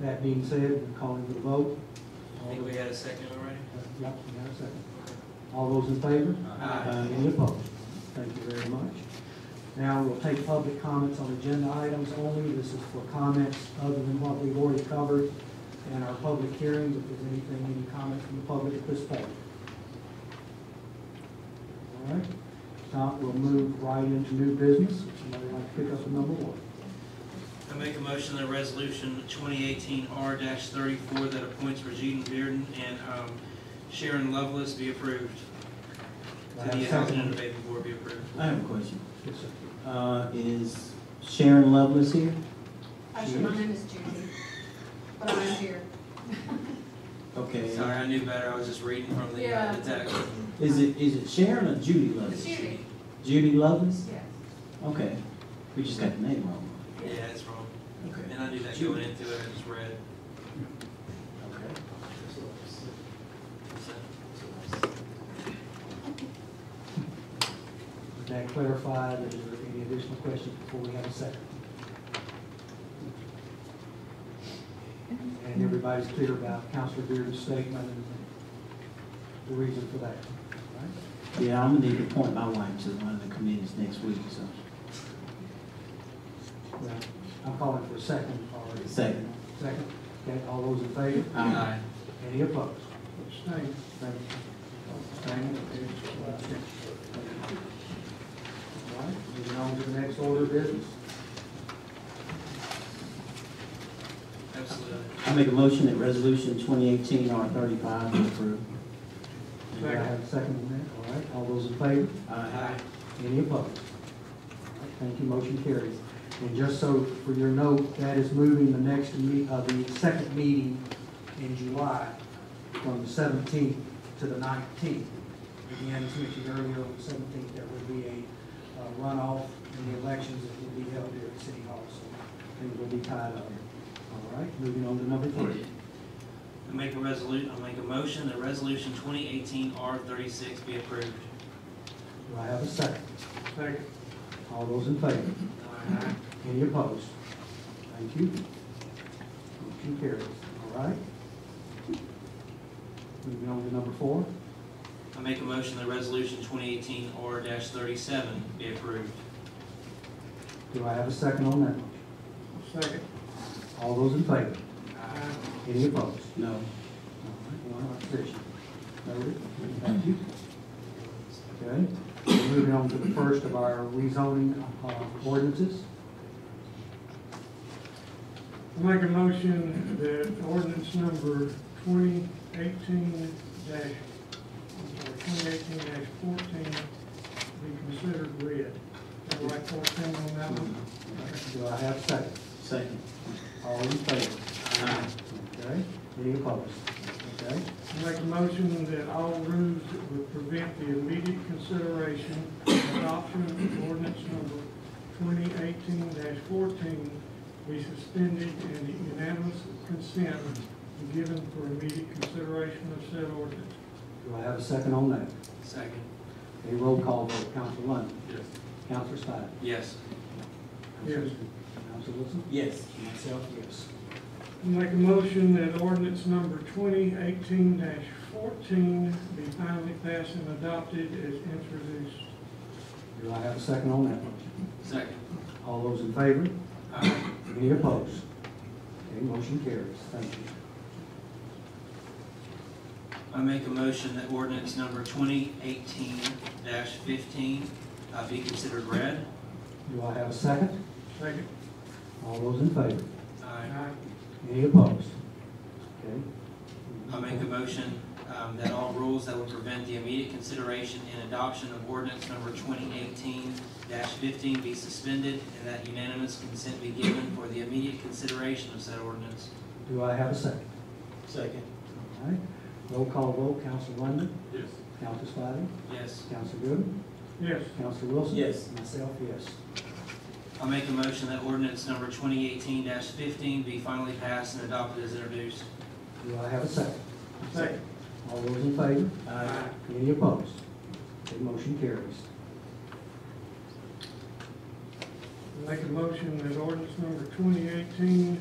That being said, we're calling for the vote. I think we had a second already. Yep, we have a second. All those in favor? Uh, Aye. Any opposed? Thank you very much. Now, we'll take public comments on agenda items only. This is for comments other than what we've already covered in our public hearings. If there's anything, any comments from the public at this point. All right, If not, we'll move right into new business. Somebody like to pick up number one. I make a motion that resolution twenty eighteen R thirty-four that appoints Regina Bearden and um, Sharon Lovelace be approved. Do I To have a the Housing and second? Development Board be approved. I have a question. Yes, sir. Uh, is Sharon Lovelace here? Actually, my name is Judy, but I'm here. Okay. Sorry, I knew better, I was just reading from the uh, the text. Is it, is it Sharon or Judy Lovelace? Judy, Judy Lovelace? yes. Okay. We just got the name wrong. Yeah, it's wrong. Okay. And I knew that going into it, I just read. Okay. Does that clarify? Is there any additional questions before we have a second? And everybody's clear about Counselor Beard's statement and the reason for that. Yeah, I'm gonna need to appoint my wife to one of the committees next week, so. Well, I'm calling for a second already. Second. Second. Okay, all those in favor? Aye. Aye. Any opposed? Abstain. Thank you. Abstain. All right, moving on to the next order of business. Absolutely. I make a motion that resolution twenty eighteen R thirty-five be approved. Do I have a second on that? All right, all those in favor? Aye. Any opposed? Thank you, motion carries. And just so for your note, that is moving the next, me- uh, the second meeting in July from the seventeenth to the nineteenth. Again, as mentioned earlier, on the seventeenth, there will be a uh, runoff in the elections that will be held here at City Hall, so things will be tied up. All right, moving on to number three. I make a resolution, I make a motion that resolution twenty eighteen R thirty-six be approved. Do I have a second? Second. All those in favor? Aye. Any opposed? Thank you. Motion carries, all right. Moving on to number four, I make a motion that resolution twenty eighteen R thirty-seven be approved. do I have a second on that? motion? Second. All those in favor? Any opposed? No. All right, One opposition. Noted, thank you. Okay, we're moving on to the first of our rezoning uh, ordinances. I Make a motion that ordinance number twenty eighteen dash, twenty eighteen dash fourteen be considered read. Am I right fourteen on that one? Do I have a second? Second. All in favor? Aye. Okay, any opposed? Okay, I Make a motion that all rules that would prevent the immediate consideration and adoption of ordinance number twenty eighteen fourteen be suspended and unanimous consent be given for immediate consideration of said ordinance. do I have a second on that? Second. A roll call vote, Council London, Yes. Council Spidey. Yes. Yes. Council Wilson? Yes. Myself, yes. I Make a motion that ordinance number twenty eighteen fourteen be finally passed and adopted as introduced. Do I have a second on that motion? Second. All those in favor? Aye. Any opposed? Okay, motion carries. Thank you. I make a motion that ordinance number twenty eighteen fifteen uh, be considered read. Do I have a second? Second. All those in favor? Aye. Aye. Any opposed? Okay. I make a motion um, that all rules that would prevent the immediate consideration and adoption of ordinance number twenty eighteen fifteen be suspended and that unanimous consent be given for the immediate consideration of said ordinance. Do I have a second? Second. All right, roll call vote, Council London, Yes. Council Spidey, Yes. Council Goodman, Yes. Council Wilson? Yes. Myself, yes. I make a motion that ordinance number twenty eighteen fifteen be finally passed and adopted as introduced. Do I have a second? Second. All those in favor? Aye. Any opposed? Okay, motion carries. I Make a motion that ordinance number twenty eighteen